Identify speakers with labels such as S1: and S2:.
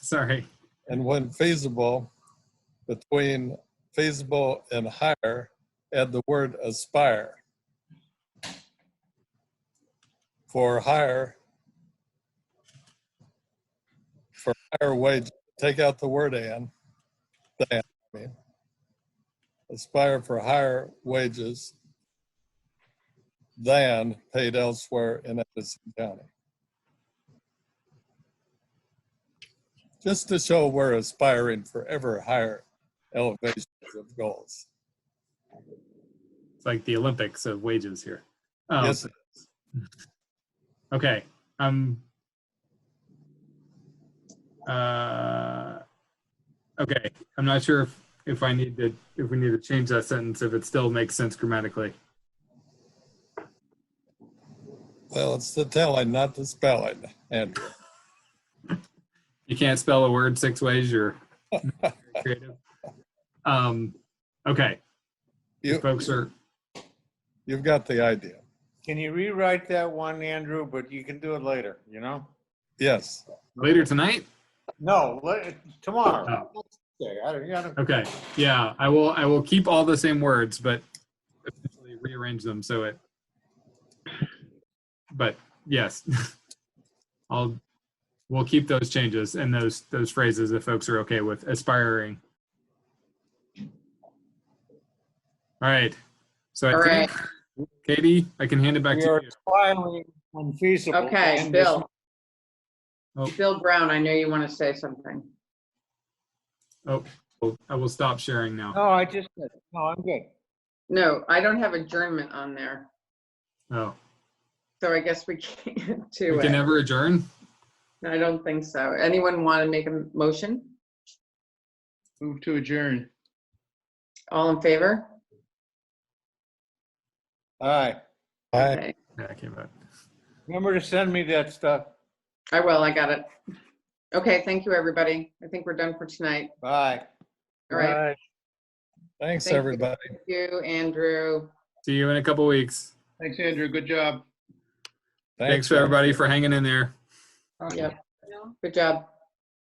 S1: Sorry.
S2: and when feasible, between feasible and hire, add the word aspire. For hire, for higher wage, take out the word and, than, I mean. Aspire for higher wages than paid elsewhere in Edison County. just to show we're aspiring for ever higher elevations of goals.
S1: It's like the Olympics of wages here.
S3: Oh.
S1: Um,
S2: Yes,
S1: Okay. Um. Uh. Okay. I'm not sure if, if I need to if we need to change that sentence if it still makes sense grammatically.
S2: well, it's the telling, not the spelling, Andrew.
S1: You can't spell a word six ways. You're creative. Um. Okay.
S2: You-
S1: Folks are
S2: You've got the idea.
S4: Can you rewrite that one, Andrew? But you can do it later, you know?
S2: Yes,
S1: later tonight.
S4: No, let- tomorrow.
S5: Oh.
S4: Okay, I don't- I don't-
S1: Okay. Yeah. I will. I will keep all the same words, but essentially rearrange them so it. But yes, I'll. We'll keep those changes and those those phrases if folks are okay with aspiring. All right. So I
S3: All right,
S1: think Katie, I can hand it back
S4: We
S1: to
S4: are
S1: you.
S4: finally unfeasible.
S3: okay,
S4: and
S3: Bill.
S1: Oh.
S3: Bill Brown, I know you want to say something.
S1: Well, I will stop sharing
S4: dis-
S3: Oh,
S1: now.
S4: No, I just, no, I'm good.
S3: No, I don't have adjournment on there,
S1: Oh,
S3: so I guess we can't
S1: we
S3: do
S1: can
S3: it.
S1: never adjourn.
S3: I don't think so. Anyone want to make a motion?
S5: Move to adjourn.
S3: All in favor?
S4: All right.
S2: I,
S3: Okay,
S1: Yeah, I came back.
S4: Remember to send me that stuff.
S3: I will, I got it. Okay, thank you, everybody. I think we're done for tonight.
S4: Bye.
S3: All right,
S2: thanks,
S3: Thank you.
S2: everybody.
S3: thank you, Andrew.
S1: See you in a couple weeks.
S5: Thanks, Andrew. Good job.
S1: Thanks, everybody for hanging in there.
S3: Yep, good job.